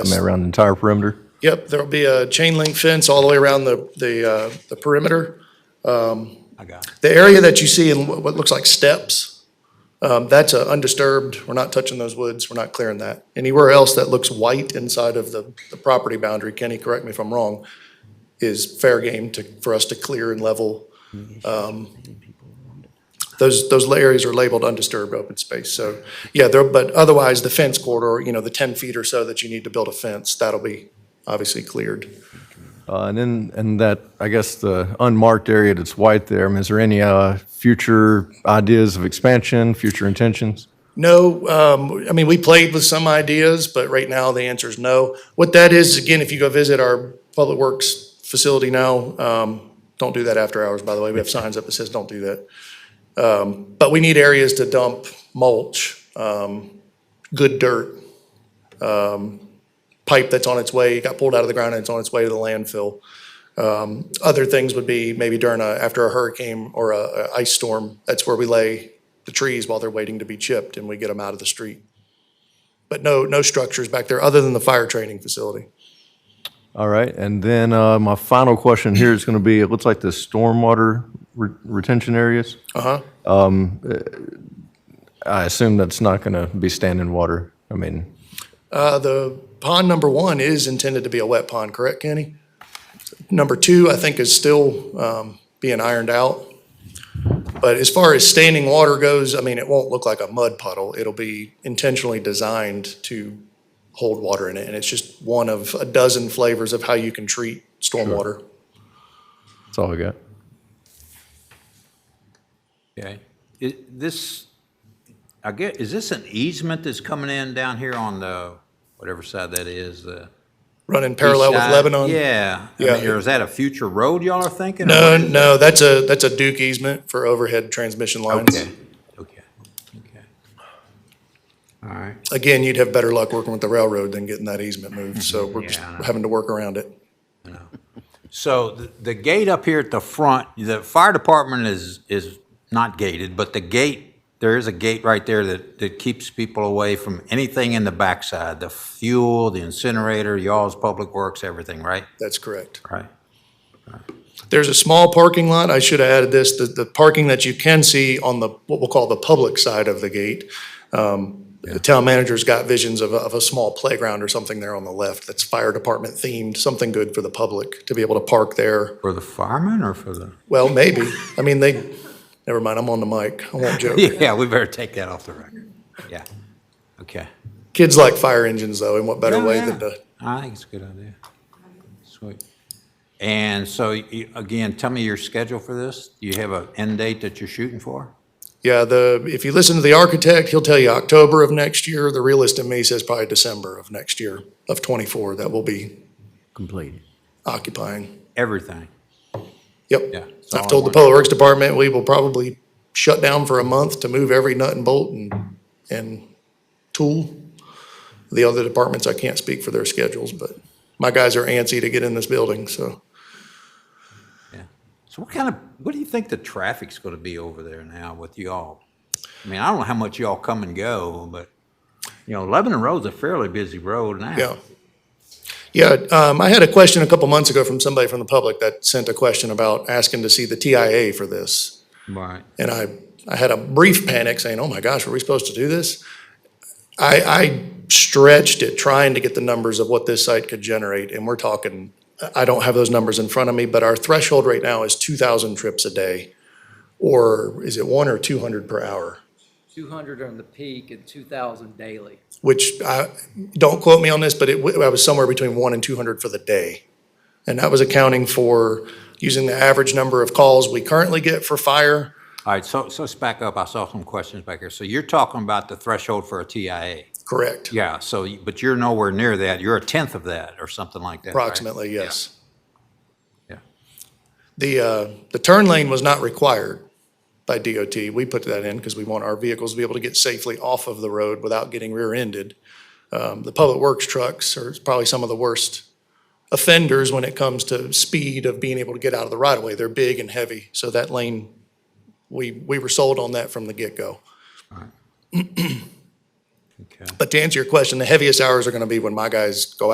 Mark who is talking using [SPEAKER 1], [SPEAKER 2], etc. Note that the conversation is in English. [SPEAKER 1] I mean, around the entire perimeter?
[SPEAKER 2] Yep, there'll be a chain link fence all the way around the, the, uh, the perimeter. Um,
[SPEAKER 3] I got it.
[SPEAKER 2] The area that you see in what what looks like steps, um, that's uh, undisturbed. We're not touching those woods. We're not clearing that. Anywhere else that looks white inside of the, the property boundary, Kenny, correct me if I'm wrong, is fair game to, for us to clear and level. Um, Those, those la- areas are labeled undisturbed open space. So, yeah, there, but otherwise, the fence corridor, you know, the 10 feet or so that you need to build a fence, that'll be obviously cleared.
[SPEAKER 1] Uh, And then, and that, I guess, the unmarked area that's white there, I mean, is there any uh, future ideas of expansion, future intentions?
[SPEAKER 2] No, um, I mean, we played with some ideas, but right now the answer is no. What that is, again, if you go visit our Public Works facility now, um, don't do that after hours, by the way. We have signs up that says, don't do that. Um, but we need areas to dump mulch, um, good dirt, um, pipe that's on its way, got pulled out of the ground and it's on its way to the landfill. Um, other things would be maybe during a, after a hurricane or a, a ice storm, that's where we lay the trees while they're waiting to be chipped and we get them out of the street. But no, no structures back there other than the fire training facility.
[SPEAKER 1] All right, and then uh, my final question here is going to be, it looks like the stormwater re- retention areas? Uh-huh. I assume that's not going to be standing water. I mean,
[SPEAKER 2] Uh, the pond number one is intended to be a wet pond, correct, Kenny? Number two, I think, is still, um, being ironed out. But as far as standing water goes, I mean, it won't look like a mud puddle. It'll be intentionally designed to hold water in it. And it's just one of a dozen flavors of how you can treat stormwater.
[SPEAKER 1] that's all I got.
[SPEAKER 3] Okay. I this, I get, is this an easement that's coming in down here on the, whatever side that is, the?
[SPEAKER 2] Running parallel with
[SPEAKER 3] east side?
[SPEAKER 2] Lebanon.
[SPEAKER 3] Yeah. I
[SPEAKER 2] Yeah.
[SPEAKER 3] mean, or is that a future road y'all are thinking? or
[SPEAKER 2] No,
[SPEAKER 3] what is
[SPEAKER 2] Uh, no, that's a, that's a Duke easement for overhead transmission
[SPEAKER 3] it?
[SPEAKER 2] lines.
[SPEAKER 3] Okay, okay, okay. All right.
[SPEAKER 2] Again, you'd have better luck working with the railroad than getting that easement moved, so we're just
[SPEAKER 3] Yeah, I know.
[SPEAKER 2] having to work around it.
[SPEAKER 3] So the, the gate up here at the front, the fire department is, is not gated, but the gate, there is a gate right there that, that keeps people away from anything in the backside, the fuel, the incinerator, y'all's public works, everything, right?
[SPEAKER 2] That's correct.
[SPEAKER 3] Right.
[SPEAKER 2] There's a small parking lot, I should have added this, the, the parking that you can see on the, what we'll call the public side of the gate. Um, The town manager's got visions of, a- of a small playground or something there on the left that's fire department themed, something good for the public to be able to park there.
[SPEAKER 3] For the firemen or for the?
[SPEAKER 2] Well, maybe, I mean, they, never mind, I'm on the mic, I won't joke.
[SPEAKER 3] Yeah, we better take that off the record. Yeah. Okay.
[SPEAKER 2] Kids like fire engines though, and what better
[SPEAKER 3] Yeah,
[SPEAKER 2] way
[SPEAKER 3] yeah.
[SPEAKER 2] than to
[SPEAKER 3] I think it's a good idea. Sweet. And so, you- again, tell me your schedule for this. Do you have an end date that you're shooting for?
[SPEAKER 2] Yeah, the, if you listen to the architect, he'll tell you October of next year. The realist in me says probably December of next year, of twenty-four, that will be
[SPEAKER 3] Completed.
[SPEAKER 2] occupying.
[SPEAKER 3] Everything. Yeah,
[SPEAKER 2] Yep.
[SPEAKER 3] it's all
[SPEAKER 2] I've
[SPEAKER 3] in
[SPEAKER 2] told the
[SPEAKER 3] one.
[SPEAKER 2] Public Works Department, we will probably shut down for a month to move every nut and bolt and, and tool. The other departments, I can't speak for their schedules, but my guys are antsy to get in this building, so.
[SPEAKER 3] Yeah. So what kind of, what do you think the traffic's going to be over there now with y'all? I mean, I don't know how much y'all come and go, but, you know, Lebanon Road's a fairly busy road now.
[SPEAKER 2] Yeah. Yeah, um, I had a question a couple months ago from somebody from the public that sent a question about asking to see the TIA for this.
[SPEAKER 3] Right.
[SPEAKER 2] And I, I had a brief panic saying, oh my gosh, were we supposed to do this? I, I stretched it trying to get the numbers of what this site could generate. And we're talking, I don't have those numbers in front of me, but our threshold right now is 2,000 trips a day. Or is it one or 200 per hour?
[SPEAKER 4] 200 on the peak and 2,000 daily.
[SPEAKER 2] Which I, don't quote me on this, but it, wa- I was somewhere between one and 200 for the day. And that was accounting for using the average number of calls we currently get for fire.
[SPEAKER 3] All right, so, so let's back up. I saw some questions back here. So you're talking about the threshold for a TIA.
[SPEAKER 2] Correct.
[SPEAKER 3] Yeah, so, you- but you're nowhere near that. You're a tenth of that or something like that, right?
[SPEAKER 2] Approximately, yes.
[SPEAKER 3] Yeah.
[SPEAKER 2] The, uh, the turn lane was not required by DOT. We put that in because we want our vehicles to be able to get safely off of the road without getting rear-ended. Um, The public works trucks are probably some of the worst offenders when it comes to speed of being able to get out of the right-of-way. They're big and heavy, so that lane, we, we were sold on that from the get-go.
[SPEAKER 3] Okay.
[SPEAKER 2] But to answer your question, the heaviest hours are going to be when my guys go